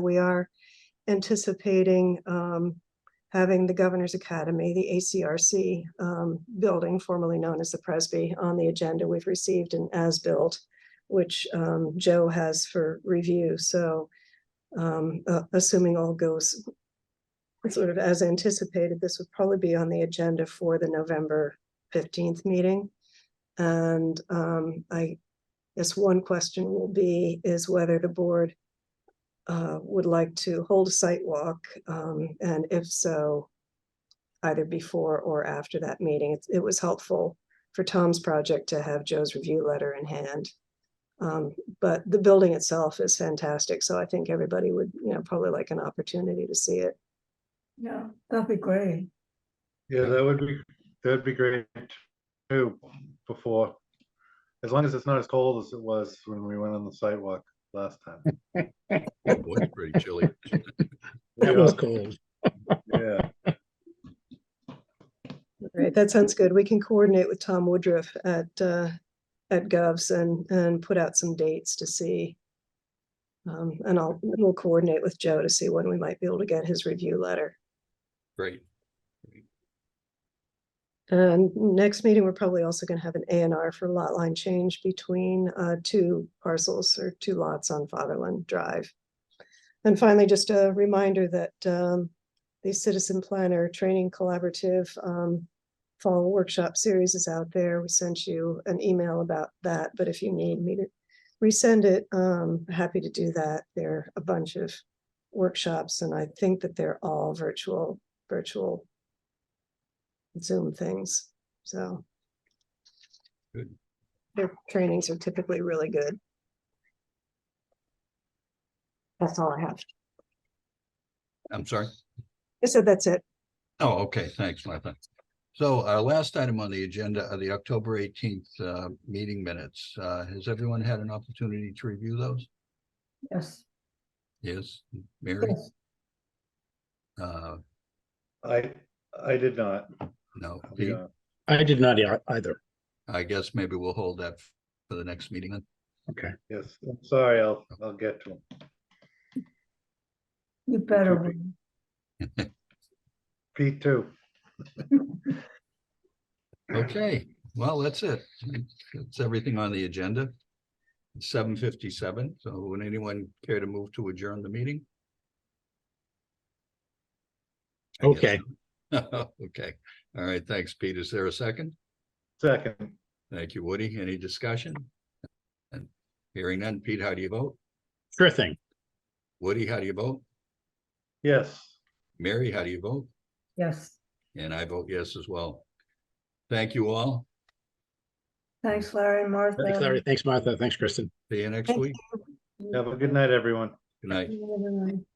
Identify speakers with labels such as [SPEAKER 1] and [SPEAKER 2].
[SPEAKER 1] We are anticipating um, having the Governor's Academy, the ACRC um, building formerly known as the Presby, on the agenda. We've received an as-built, which um, Joe has for review. So um, uh, assuming all goes sort of as anticipated, this would probably be on the agenda for the November 15th meeting. And um, I guess one question will be is whether the board uh, would like to hold a site walk, um, and if so, either before or after that meeting. It, it was helpful for Tom's project to have Joe's review letter in hand. Um, but the building itself is fantastic, so I think everybody would, you know, probably like an opportunity to see it.
[SPEAKER 2] Yeah, that'd be great.
[SPEAKER 3] Yeah, that would be, that'd be great too, before. As long as it's not as cold as it was when we went on the sidewalk last time.
[SPEAKER 4] It was Oh, pretty chilly.
[SPEAKER 5] That was
[SPEAKER 3] Yeah,
[SPEAKER 5] cold.
[SPEAKER 3] Yeah,
[SPEAKER 1] All Right, that sounds good. We can coordinate with Tom Woodruff at, uh, at Govs and, and put out some dates to see. Um, and I'll, we'll coordinate with Joe to see when we might be able to get his review letter.
[SPEAKER 4] Great.
[SPEAKER 1] And Uh, next meeting, we're probably also gonna have an A and R for lot line change between uh two parcels or two lots on Fatherland Drive. And finally, just a reminder that um the Citizen Planner Training Collaborative um Fall Workshop Series is out there. We sent you an email about that, but if you need me to resend it, um happy to do that. There are a bunch of workshops and I think that they're all virtual, virtual Zoom things, so.
[SPEAKER 4] Good.
[SPEAKER 1] Their trainings are typically really good. That's all I have.
[SPEAKER 4] I'm sorry.
[SPEAKER 1] I said that's it.
[SPEAKER 4] Oh, okay. Thanks, Martha. So our last item on the agenda are the October eighteenth uh meeting minutes. Uh, has everyone had an opportunity to review those?
[SPEAKER 2] Yes.
[SPEAKER 4] Yes, Mary?
[SPEAKER 2] Yes.
[SPEAKER 4] Uh,
[SPEAKER 3] I, I did not.
[SPEAKER 4] no,
[SPEAKER 3] I'll be
[SPEAKER 4] Pete?
[SPEAKER 3] honest.
[SPEAKER 5] I did not ei- either.
[SPEAKER 4] I guess maybe we'll hold that for the next meeting then.
[SPEAKER 5] Okay.
[SPEAKER 3] Yes, I'm sorry, I'll, I'll get to him.
[SPEAKER 2] You better.
[SPEAKER 3] Could
[SPEAKER 2] win.
[SPEAKER 3] Pete too.
[SPEAKER 4] Okay, well, that's it. That's everything on the agenda. Seven fifty-seven, so would anyone care to move to adjourn the meeting? I guess
[SPEAKER 5] Okay.
[SPEAKER 4] not. Okay, all right, thanks, Pete. Is there a second?
[SPEAKER 3] Second,
[SPEAKER 4] Thank you, Woody. Any discussion? And hearing none, Pete, how do you vote?
[SPEAKER 5] Sure thing.
[SPEAKER 4] Woody, how do you vote?
[SPEAKER 3] yes,
[SPEAKER 4] Mary, how do you vote?
[SPEAKER 2] Yes,
[SPEAKER 4] And I vote yes as well. Thank you all.
[SPEAKER 2] thanks Larry and Martha.
[SPEAKER 5] Thanks, Larry. Thanks, Martha. Thanks, Kristen.
[SPEAKER 4] See you next
[SPEAKER 1] Thank
[SPEAKER 4] week.
[SPEAKER 3] have a good night, everyone.
[SPEAKER 4] Good night.
[SPEAKER 2] Good night.